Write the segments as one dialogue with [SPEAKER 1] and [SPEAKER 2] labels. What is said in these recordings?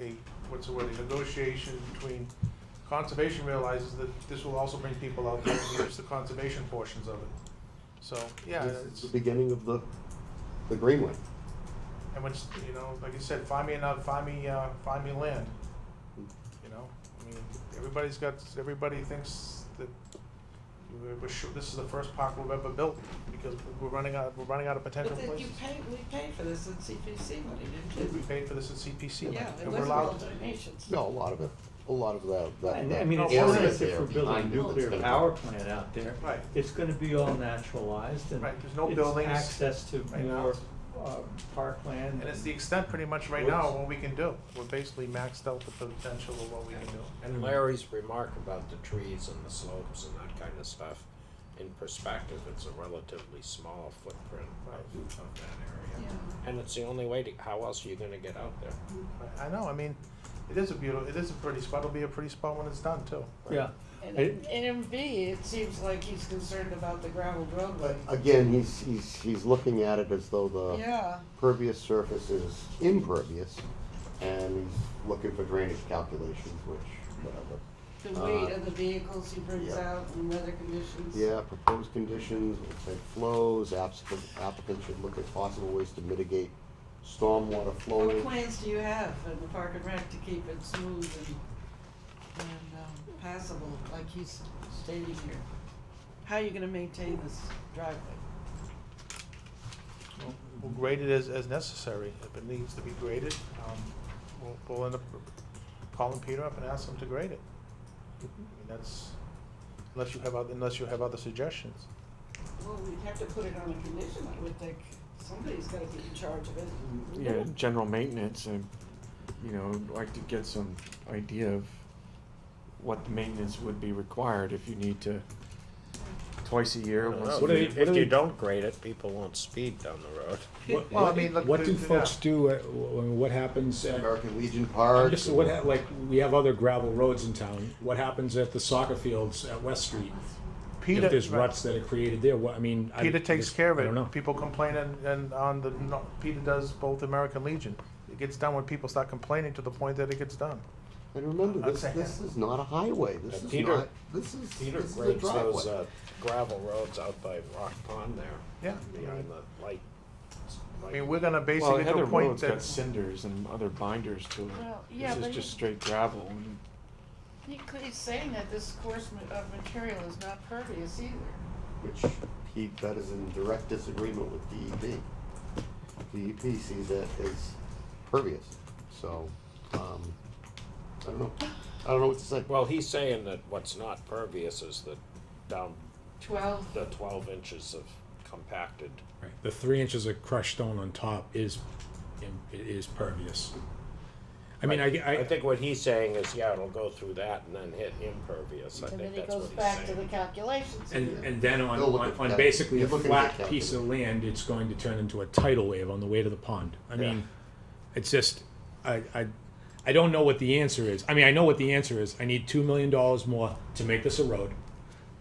[SPEAKER 1] a, what's the word, a negotiation between, conservation realizes that this will also bring people out there and use the conservation portions of it. So, yeah,
[SPEAKER 2] It's
[SPEAKER 1] it's,
[SPEAKER 2] the beginning of the, the greenway.
[SPEAKER 1] and which, you know, like you said, find me enough, find me, uh, find me land, you know? I mean, everybody's got, everybody thinks that we're, we're sure, this is the first park we've ever built because we're running out, we're running out of potential
[SPEAKER 3] But then you
[SPEAKER 1] places.
[SPEAKER 3] paid, we paid for this in CPC money, didn't
[SPEAKER 1] We
[SPEAKER 3] you?
[SPEAKER 1] paid for this at CPC.
[SPEAKER 3] Yeah, it
[SPEAKER 1] and we're
[SPEAKER 3] wasn't
[SPEAKER 1] allowed-
[SPEAKER 3] all donations.
[SPEAKER 2] No, a lot of it, a lot of that, that.
[SPEAKER 4] And I mean,
[SPEAKER 1] No,
[SPEAKER 4] it's
[SPEAKER 1] part of
[SPEAKER 4] not
[SPEAKER 1] it
[SPEAKER 4] as if we're building a
[SPEAKER 2] behind you, it's
[SPEAKER 4] nuclear
[SPEAKER 2] gonna-
[SPEAKER 4] power plant out there.
[SPEAKER 1] Right.
[SPEAKER 4] It's gonna be all naturalized and.
[SPEAKER 1] Right, there's no
[SPEAKER 4] it's
[SPEAKER 1] buildings
[SPEAKER 4] access to
[SPEAKER 1] right now.
[SPEAKER 4] more, uh, parkland.
[SPEAKER 1] And it's the extent pretty much right now of what we can do. We're basically maxed out the potential of what we can do.
[SPEAKER 5] And Larry's remark about the trees and the slopes and that kind of stuff, in perspective, it's a relatively small footprint of,
[SPEAKER 1] Right.
[SPEAKER 5] of that
[SPEAKER 3] Yeah.
[SPEAKER 5] area. And it's the only way to, how else are you gonna get out there?
[SPEAKER 1] I I know, I mean, it is a beautiful, it is a pretty spot, it'll be a pretty spot when it's done too.
[SPEAKER 4] Yeah,
[SPEAKER 3] And,
[SPEAKER 4] I-
[SPEAKER 3] and in B, it seems like he's concerned about the gravel roadway.
[SPEAKER 1] Uh,
[SPEAKER 2] Again, he's, he's, he's looking at it as though the
[SPEAKER 3] Yeah,
[SPEAKER 2] pervious surface is impervious, and he's looking for drainage calculations, which, whatever.
[SPEAKER 3] the
[SPEAKER 2] Uh,
[SPEAKER 3] weight of the vehicles he brings
[SPEAKER 2] yeah.
[SPEAKER 3] out and weather conditions.
[SPEAKER 2] Yeah, proposed conditions, we'll say flows, applicant, applicant should look at possible ways to mitigate stormwater
[SPEAKER 3] What
[SPEAKER 2] flowing.
[SPEAKER 3] plans do you have in the park and rec to keep it smooth and, and um, passable, like he's stating here? How are you gonna maintain this driveway?
[SPEAKER 1] We'll- We'll grade it as, as necessary. If it needs to be graded, um, we'll, we'll end up calling Peter up and ask him to grade it. I mean, that's, unless you have other, unless you have other suggestions.
[SPEAKER 3] Well, we'd have to put it on a condition, I would think. Somebody's gotta be in charge of it.
[SPEAKER 6] yeah, general maintenance, and you know, I'd like to get some idea of what the maintenance would be required if you need to twice a year. once
[SPEAKER 5] If
[SPEAKER 6] a
[SPEAKER 4] do
[SPEAKER 5] you-
[SPEAKER 6] year.
[SPEAKER 4] they- what
[SPEAKER 5] If
[SPEAKER 4] do
[SPEAKER 5] you
[SPEAKER 4] they-
[SPEAKER 5] don't grade it, people won't speed down the road.
[SPEAKER 4] What-
[SPEAKER 1] Well, I mean, look.
[SPEAKER 7] What do
[SPEAKER 1] yeah.
[SPEAKER 7] folks do, uh, wh- wh- what happens at,
[SPEAKER 2] American Legion Park.
[SPEAKER 7] just what, ha- like, we have other gravel roads in town, what happens at the soccer fields at West Street?
[SPEAKER 1] Peter-
[SPEAKER 7] If there's
[SPEAKER 1] right.
[SPEAKER 7] ruts that are created there, what, I mean. I-
[SPEAKER 1] Peter takes
[SPEAKER 7] just-
[SPEAKER 1] care of
[SPEAKER 7] I don't know.
[SPEAKER 1] it. People complain and, and on the, no, Peter does both American Legion. It gets done when people start complaining to the point that it gets done.
[SPEAKER 2] And remember,
[SPEAKER 1] I'm
[SPEAKER 2] this,
[SPEAKER 1] saying-
[SPEAKER 2] this is not a highway, this
[SPEAKER 5] Uh,
[SPEAKER 2] is
[SPEAKER 5] Peter-
[SPEAKER 2] not, this is,
[SPEAKER 5] Peter
[SPEAKER 2] this is a
[SPEAKER 5] grades those
[SPEAKER 2] driveway.
[SPEAKER 5] uh, gravel roads out by Rock Pond there,
[SPEAKER 1] Yeah.
[SPEAKER 5] behind the light.
[SPEAKER 1] I
[SPEAKER 5] light-
[SPEAKER 1] mean, we're gonna
[SPEAKER 6] Well,
[SPEAKER 1] basically to
[SPEAKER 6] Heather
[SPEAKER 1] a point
[SPEAKER 6] Road's
[SPEAKER 1] that.
[SPEAKER 6] got cinders and other binders to it.
[SPEAKER 3] Well, yeah,
[SPEAKER 6] this
[SPEAKER 3] but
[SPEAKER 6] is just
[SPEAKER 3] you-
[SPEAKER 6] straight gravel. And
[SPEAKER 3] He, cl- he's saying that this course ma- of material is not pervious either.
[SPEAKER 2] Which he, that is in direct disagreement with E DEP. DEP E sees that as pervious, so, um, I don't know, I don't know what to say.
[SPEAKER 5] Well, he's saying that what's not pervious is the down,
[SPEAKER 3] Twelve,
[SPEAKER 5] the twelve inches of compacted.
[SPEAKER 7] The three inches of crushed stone on top is, im- it is pervious. I mean, I, I.
[SPEAKER 5] I think what he's saying is, yeah, it'll go through that and then hit impervious, I
[SPEAKER 3] and then
[SPEAKER 5] think
[SPEAKER 3] he
[SPEAKER 5] that's what
[SPEAKER 3] goes
[SPEAKER 5] he's saying.
[SPEAKER 3] back to the calculations.
[SPEAKER 7] And, and then on,
[SPEAKER 2] They'll look
[SPEAKER 7] on,
[SPEAKER 2] at
[SPEAKER 7] on
[SPEAKER 2] that.
[SPEAKER 7] basically a
[SPEAKER 2] You're looking
[SPEAKER 7] flat
[SPEAKER 2] at that
[SPEAKER 7] piece of land, it's going to turn into a tidal wave on the way to the pond. I mean, it's just, I, I, I don't know what the answer is. I mean, I know what the answer is. I need two million dollars more to make this a road,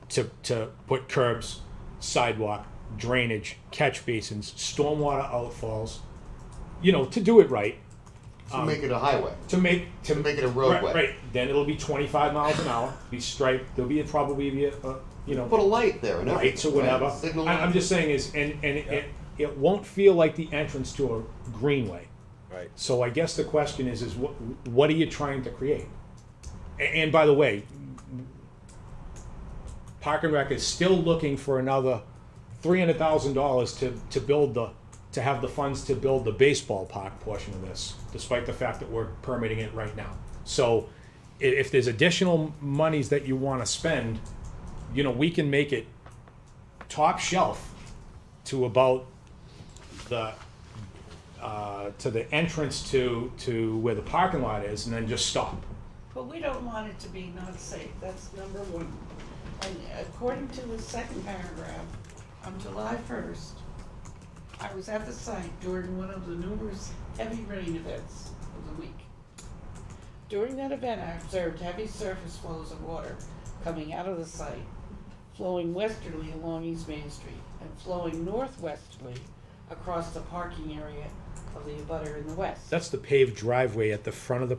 [SPEAKER 7] to, to put curbs, sidewalk, drainage, catch basins, stormwater outfalls, you know, to do it right,
[SPEAKER 2] To make it a highway.
[SPEAKER 7] to make, to.
[SPEAKER 2] make it a
[SPEAKER 7] right-
[SPEAKER 2] roadway.
[SPEAKER 7] Right, then it'll be twenty-five miles an hour, be striped, there'll be a, probably be a, a, you know
[SPEAKER 2] Put a light there and everything.
[SPEAKER 7] lights or whatever.
[SPEAKER 2] right? Signal
[SPEAKER 7] I, I'm
[SPEAKER 2] lights.
[SPEAKER 7] just saying is, and, and it, it won't feel like the entrance to a greenway.
[SPEAKER 5] Right.
[SPEAKER 7] So I guess the question is, is what, what are you trying to create? A- And, by the way, Park and Rec is still looking for another three hundred thousand dollars to, to build the, to have the funds to build the baseball park portion of this, despite the fact that we're permitting it right now. So i- if there's additional monies that you wanna spend, you know, we can make it top shelf to about the uh, to the entrance to to where the parking lot is, and then just stop.
[SPEAKER 3] But we don't want it to be not safe, that's number one. And according to the second paragraph, on July first, I was at the site during one of the numerous heavy rain events of the week. During that event, I observed heavy surface flows of water coming out of the site, flowing westerly along East Main Street and flowing northwesterly across the parking area of the abutter in the west.
[SPEAKER 7] That's the paved driveway at the front of the